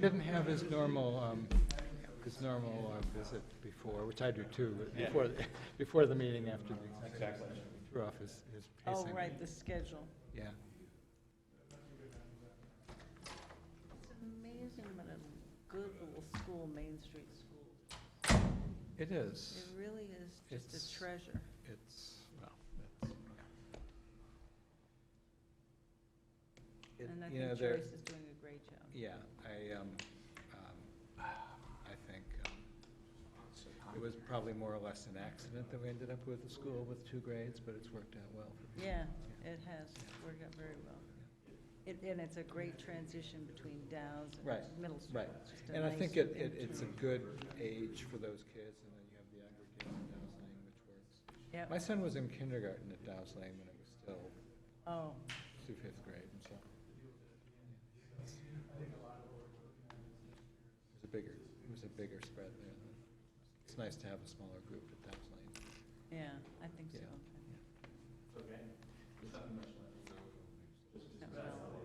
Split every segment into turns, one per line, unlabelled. didn't have his normal, um, his normal uh, visit before, which I do too, but before, the- before the meeting after the executive session, he threw off his, his
Oh,
pacing.
right, the schedule.
Yeah.
It's amazing what a good little school, Main Street School.
It
It
is.
really is just
It's-
a treasure.
It's, well, it's, yeah. It-
And I
you know,
think
there-
Joyce is doing a great job.
Yeah, I, um, um, I think, um, it was probably more or less an accident that we ended up with the school with two grades, but it's worked out well for people.
Yeah, it has worked out very well. It, and it's a great transition between Dow's
Right,
and middle school.
Right,
It's just a
and I
nice
think it, it,
in-
it's a good age for those kids, and then you have the aggregate at Dow's Lane, which works.
Yep.
My son was in kindergarten at Dow's Lane when it was still
Oh,
through fifth grade, and so. It was a bigger, it was a bigger spread there. than- It's nice to have a smaller group at Dow's Lane.
yeah, I think so.
Yeah.
That was all.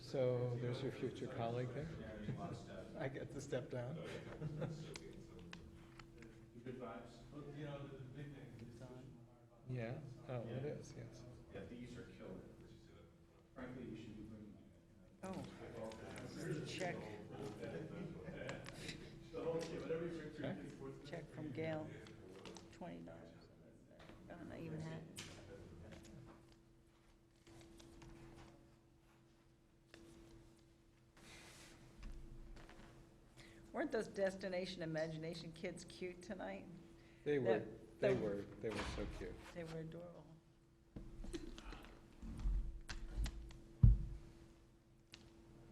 So there's your future colleague there? I get to step down? Yeah, oh, it is, yes.
Oh, this is a check. Check from Gail, twenty dollars. I don't know, even had. Weren't those Destination Imagination kids cute tonight?
They were, they
the-
were, they were so cute.
They were adorable.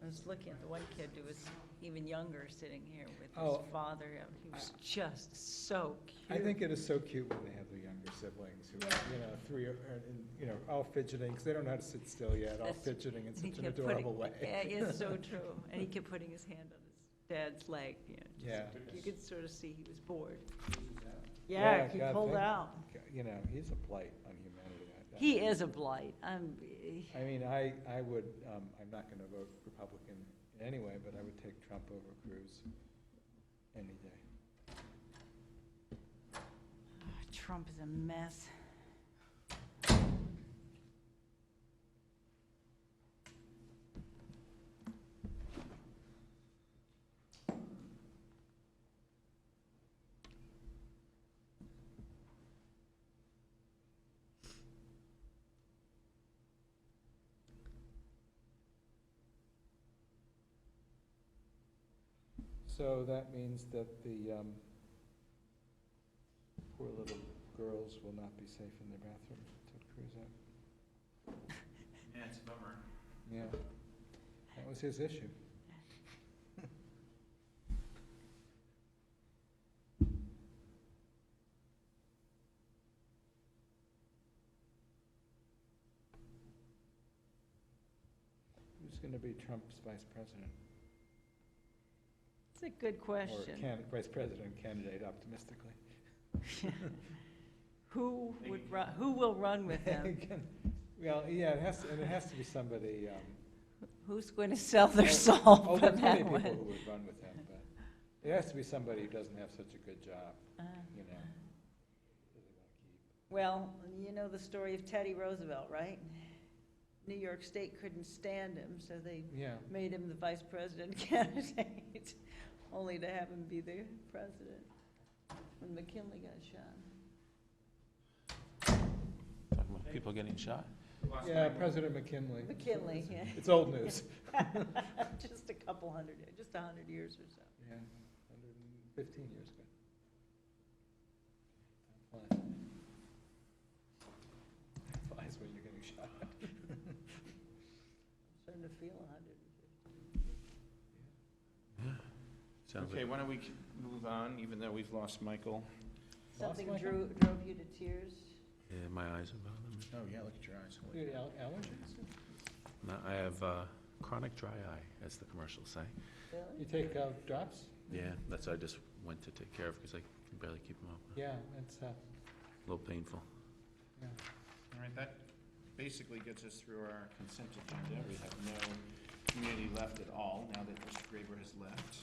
I was looking at the one kid who was even younger, sitting here with
Oh.
his father, and he was just so
I
cute.
think it is so cute when they have the younger siblings who are, you know, three, or, or, and, you know, all fidgeting, because they don't know how to sit still yet, all
That's-
fidgeting in
He
such an
kept putting-
adorable way.
Yeah, it's so true, and he kept putting his hand on his dad's leg, you know, just-
Yeah.
you could sort of see he was bored.
Yeah,
Yeah, he
God,
pulled
thank-
out.
You know, he's a blight on humanity. I- I-
He is a blight, I'm, eh,
I mean, I, I would, um, I'm not gonna vote Republican in any way, but I would take Trump over Cruz any day.
Trump is a mess.
So that means that the, um, poor little girls will not be safe in their bathrooms until Cruz out.
Yeah, it's a bummer.
Yeah, that was his issue. Who's gonna be Trump's vice president?
It's a good
Or
question.
can, vice president candidate optimistically.
Who would run, who will run with him?
Well, yeah, it has, to- and it has to be somebody, um,
Who's going to sell their
Oh,
soul for
there's many
that
people
one?
who would run with him, but it has to be somebody who doesn't have such a good job,
Uh,
you know.
Well, you know the story of Teddy Roosevelt, right? New York State couldn't stand him, so they
Yeah,
made him the vice president candidate, only to have him be the president when McKinley got shot.
Talking about people getting shot.
yeah, President McKinley.
McKinley, yeah.
It's old news.
Just a couple hundred, just a hundred years or so.
Yeah, hundred and fifteen years ago. Time flies. Time Flies when you're getting shot.
Starting to feel a hundred and fifty.
Okay, why don't we c- move on, even though we've lost Michael?
Lost
Something
my hand?
drew, drove you to tears?
Yeah, my eyes are bothering me.
Oh, yeah, look at your eyes.
Do you have al- allergies?
No, I have uh, chronic dry eye, as the commercials say.
You
Really?
take uh, drops?
Mm-hmm.
Yeah, that's what I just went to take care of because I can barely keep them up.
Yeah, it's, uh,
A little painful.
yeah.
All right, that basically gets us through our consent agenda. We have no community left at all, now that Mr. Graber has left.